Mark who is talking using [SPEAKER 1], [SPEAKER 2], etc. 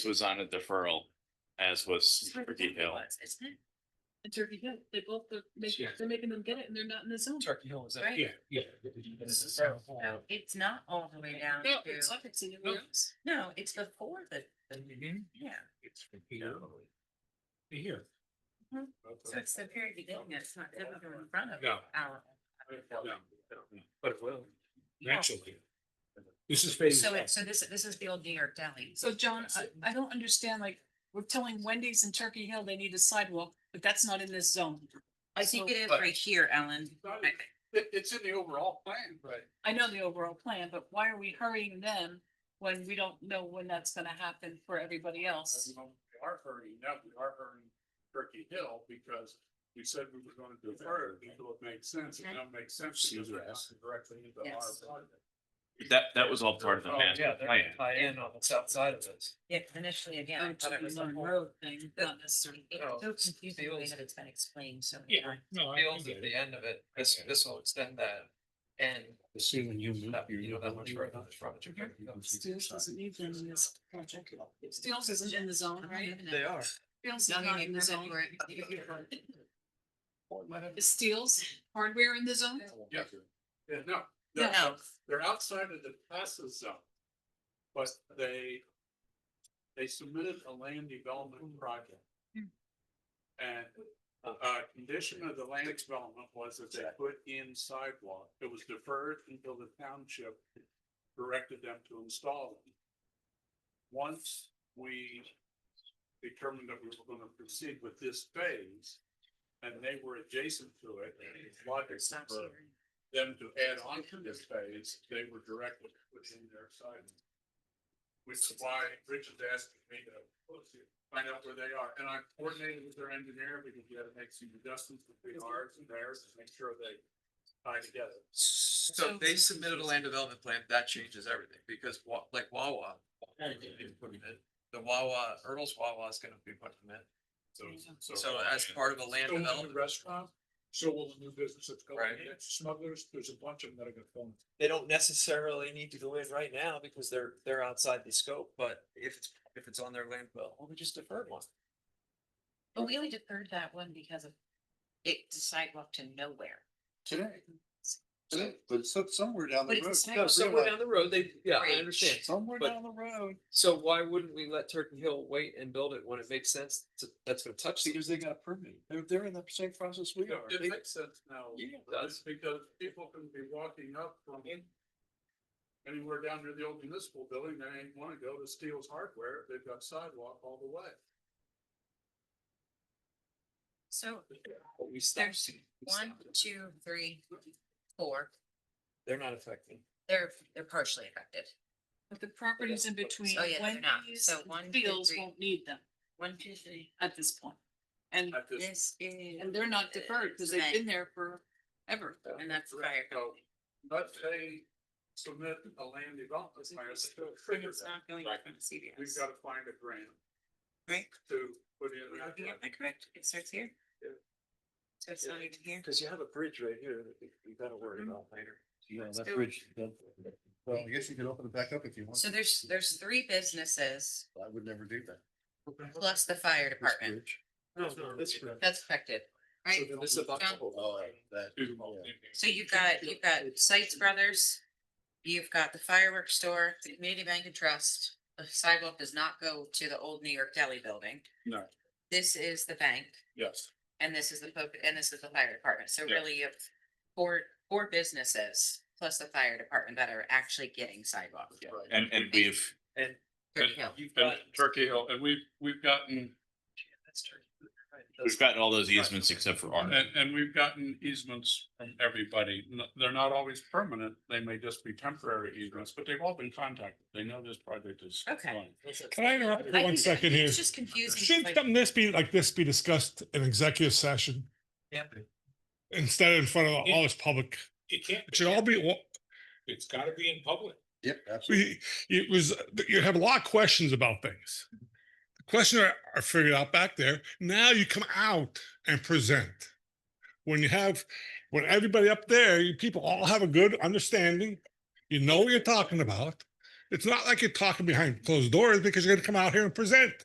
[SPEAKER 1] was on a deferral, as was Turkey Hill.
[SPEAKER 2] Isn't it? And Turkey Hill, they both, they're making,
[SPEAKER 3] Yeah.
[SPEAKER 2] they're making them get it and they're not in the zone.
[SPEAKER 3] Turkey Hill is that?
[SPEAKER 2] Right.
[SPEAKER 3] Yeah, yeah.
[SPEAKER 4] No, It's not all the way down
[SPEAKER 2] No,
[SPEAKER 4] to,
[SPEAKER 2] it's like it's anywhere else.
[SPEAKER 4] no, it's before the, the-
[SPEAKER 3] Mhm.
[SPEAKER 4] yeah,
[SPEAKER 3] It's from here. Here.
[SPEAKER 4] Mhm. so it's the very beginning, it's not ever in front of
[SPEAKER 3] No.
[SPEAKER 4] our.
[SPEAKER 3] But it will. Naturally. This is phase.
[SPEAKER 4] So
[SPEAKER 3] one.
[SPEAKER 4] it, so this, this is the old New York deli.
[SPEAKER 2] So John, I, I don't understand, like, we're telling Wendy's and Turkey Hill they need a sidewalk, but that's not in this zone.
[SPEAKER 4] I think it is
[SPEAKER 3] But-
[SPEAKER 4] right here, Ellen. I-
[SPEAKER 3] It, it's in the overall plan, but.
[SPEAKER 2] I know the overall plan, but why are we hurrying them when we don't know when that's gonna happen for everybody else?
[SPEAKER 3] We are hurting, now we are hurting Turkey Hill because we said we were gonna defer, it until it makes sense, and now it makes sense because we're asking directly into our
[SPEAKER 4] Yes.
[SPEAKER 3] project.
[SPEAKER 1] That, that was all part of the
[SPEAKER 3] Oh,
[SPEAKER 1] master plan.
[SPEAKER 5] tie in on the south side of this.
[SPEAKER 4] Yeah, initially, again, I
[SPEAKER 2] Oh,
[SPEAKER 4] thought it was the
[SPEAKER 2] Long
[SPEAKER 4] whole.
[SPEAKER 2] Road thing, not necessarily.
[SPEAKER 4] It's
[SPEAKER 5] Oh,
[SPEAKER 4] so confusing the way
[SPEAKER 5] feels-
[SPEAKER 4] that it's been explained, so. many
[SPEAKER 3] Yeah,
[SPEAKER 4] times.
[SPEAKER 3] no,
[SPEAKER 5] Fields at the end of it, this, this will extend that. And
[SPEAKER 3] Assuming you move.
[SPEAKER 5] that, you know, that much further than the front.
[SPEAKER 2] Steels doesn't need them in this project. Steels isn't in the zone, right?
[SPEAKER 5] They are.
[SPEAKER 2] Steels is
[SPEAKER 4] Young
[SPEAKER 2] not
[SPEAKER 4] and
[SPEAKER 2] in the zone.
[SPEAKER 4] ignorant.
[SPEAKER 2] Is Steels hardware in the zone?
[SPEAKER 3] Yeah, yeah, no, they're,
[SPEAKER 4] No,
[SPEAKER 3] they're outside of the classes zone. But they, they submitted a land development project. And, uh, condition of the land development was that they put in sidewalk, it was deferred until the township directed them to install them. Once we determined that we were gonna proceed with this phase, and they were adjacent to it, logic
[SPEAKER 4] it's not
[SPEAKER 3] for
[SPEAKER 4] here.
[SPEAKER 3] them to add on to this phase, they were directed within their site. Which is why Richard's asking me to find out where they are, and I coordinated with their engineer, because we had to make some adjustments between ours and theirs to make sure they tie together.
[SPEAKER 5] So they submitted a land development plan, that changes everything, because wa- like Wawa. The Wawa, Ertles Wawa is gonna be putting them in,
[SPEAKER 3] So, so.
[SPEAKER 5] so as part of a land
[SPEAKER 3] So will the
[SPEAKER 5] development.
[SPEAKER 3] Restaurant, so will the new business that's going
[SPEAKER 5] Right.
[SPEAKER 3] in, smugglers, there's a bunch of them that are gonna film.
[SPEAKER 6] they don't necessarily need to go in right now because they're, they're outside the scope, but
[SPEAKER 5] If it's, if it's on their land bill.
[SPEAKER 6] well, we just deferred one.
[SPEAKER 4] But we only deferred that one because of it, the sidewalk to nowhere.
[SPEAKER 7] Today. Today, but so- somewhere down
[SPEAKER 4] But
[SPEAKER 7] the
[SPEAKER 4] it's
[SPEAKER 7] road.
[SPEAKER 4] the
[SPEAKER 7] you gotta
[SPEAKER 6] somewhere
[SPEAKER 7] realize-
[SPEAKER 6] Oh, down the road, they, yeah,
[SPEAKER 4] Right.
[SPEAKER 6] I understand.
[SPEAKER 7] Somewhere
[SPEAKER 6] but-
[SPEAKER 7] down the road,
[SPEAKER 6] So why wouldn't we let Turkey Hill wait and build it when it makes sense? to- That's gonna touch. the-
[SPEAKER 7] because they got a permit. They're, they're in the same process we are.
[SPEAKER 3] It
[SPEAKER 7] They-
[SPEAKER 3] makes sense now.
[SPEAKER 6] Yeah, it
[SPEAKER 3] That's
[SPEAKER 6] does.
[SPEAKER 3] because people can be walking up from anywhere down near the old municipal building, they ain't wanna go to Steel's Hardware, they've got sidewalk all the way.
[SPEAKER 4] So
[SPEAKER 6] But we stopped.
[SPEAKER 4] there's
[SPEAKER 6] We
[SPEAKER 4] one,
[SPEAKER 6] stopped.
[SPEAKER 4] two, three, four.
[SPEAKER 6] They're not affecting.
[SPEAKER 4] They're, they're partially affected.
[SPEAKER 2] But the properties in between
[SPEAKER 4] Oh, yeah, they're not.
[SPEAKER 2] Wendy's
[SPEAKER 4] So one,
[SPEAKER 2] and
[SPEAKER 4] two,
[SPEAKER 2] Steels
[SPEAKER 4] three.
[SPEAKER 2] won't need them
[SPEAKER 4] One, two, three.
[SPEAKER 2] at this point. And,
[SPEAKER 3] At this-
[SPEAKER 4] This is.
[SPEAKER 2] and they're not deferred because they've been there forever.
[SPEAKER 4] And that's the fire
[SPEAKER 3] So,
[SPEAKER 4] company.
[SPEAKER 3] But they submit a land development plan, it's still triggered
[SPEAKER 4] It's
[SPEAKER 3] that.
[SPEAKER 4] not going
[SPEAKER 3] Right.
[SPEAKER 4] from CVS.
[SPEAKER 3] We've gotta find a grant.
[SPEAKER 4] Right.
[SPEAKER 3] To put in.
[SPEAKER 4] Am
[SPEAKER 3] that.
[SPEAKER 4] I correct? It starts here?
[SPEAKER 3] Yeah.
[SPEAKER 4] So it's not even here?
[SPEAKER 6] Cause you have a bridge right here that you- you gotta worry
[SPEAKER 4] Mm-hmm.
[SPEAKER 6] about later.
[SPEAKER 7] Yeah, that
[SPEAKER 4] So-
[SPEAKER 7] bridge, that- Well, I guess you could open it back up if you want.
[SPEAKER 4] So there's, there's three businesses
[SPEAKER 7] I would never do that.
[SPEAKER 4] plus the fire
[SPEAKER 7] This
[SPEAKER 4] department.
[SPEAKER 7] bridge.
[SPEAKER 6] No, this bridge.
[SPEAKER 4] That's affected, right?
[SPEAKER 6] So This is about.
[SPEAKER 4] John?
[SPEAKER 7] Oh, that.
[SPEAKER 3] Do-
[SPEAKER 7] yeah.
[SPEAKER 4] So you've got, you've got Sites Brothers, you've got the fireworks store, the Community Bank and Trust. The sidewalk does not go to the old New York Deli building.
[SPEAKER 3] No.
[SPEAKER 4] This is the bank
[SPEAKER 3] Yes,
[SPEAKER 4] and this is the, po- and this is the fire department. So
[SPEAKER 3] Yeah.
[SPEAKER 4] really you have four, four businesses plus the fire department that are actually getting sidewalk.
[SPEAKER 3] right.
[SPEAKER 1] And, and we've,
[SPEAKER 4] Turkey Hill.
[SPEAKER 6] You've
[SPEAKER 3] And
[SPEAKER 6] got.
[SPEAKER 3] Turkey Hill, and we've, we've gotten
[SPEAKER 6] That's Turkey Hill, right.
[SPEAKER 1] we've gotten all those easements except for ours.
[SPEAKER 3] And, and we've gotten easements from everybody. N- They're not always permanent. They may just be temporary easements, but they've all been contacted. They know this project is.
[SPEAKER 4] Okay.
[SPEAKER 3] going.
[SPEAKER 8] Can I interrupt for
[SPEAKER 4] I
[SPEAKER 8] one
[SPEAKER 4] think-
[SPEAKER 8] second here?
[SPEAKER 4] It's just confusing.
[SPEAKER 8] Shouldn't
[SPEAKER 4] like-
[SPEAKER 8] something this be like this be discussed in executive session
[SPEAKER 5] Can't be.
[SPEAKER 8] instead of in front of all this public?
[SPEAKER 9] It can't,
[SPEAKER 8] It should all be, well,
[SPEAKER 9] it's gotta be in public.
[SPEAKER 7] Yep, absolutely.
[SPEAKER 8] we- it was, you have a lot of questions about things. The question I I figured out back there, now you come out and present. When you have, when everybody up there, you people all have a good understanding, you know what you're talking about. It's not like you're talking behind closed doors because you're gonna come out here and present.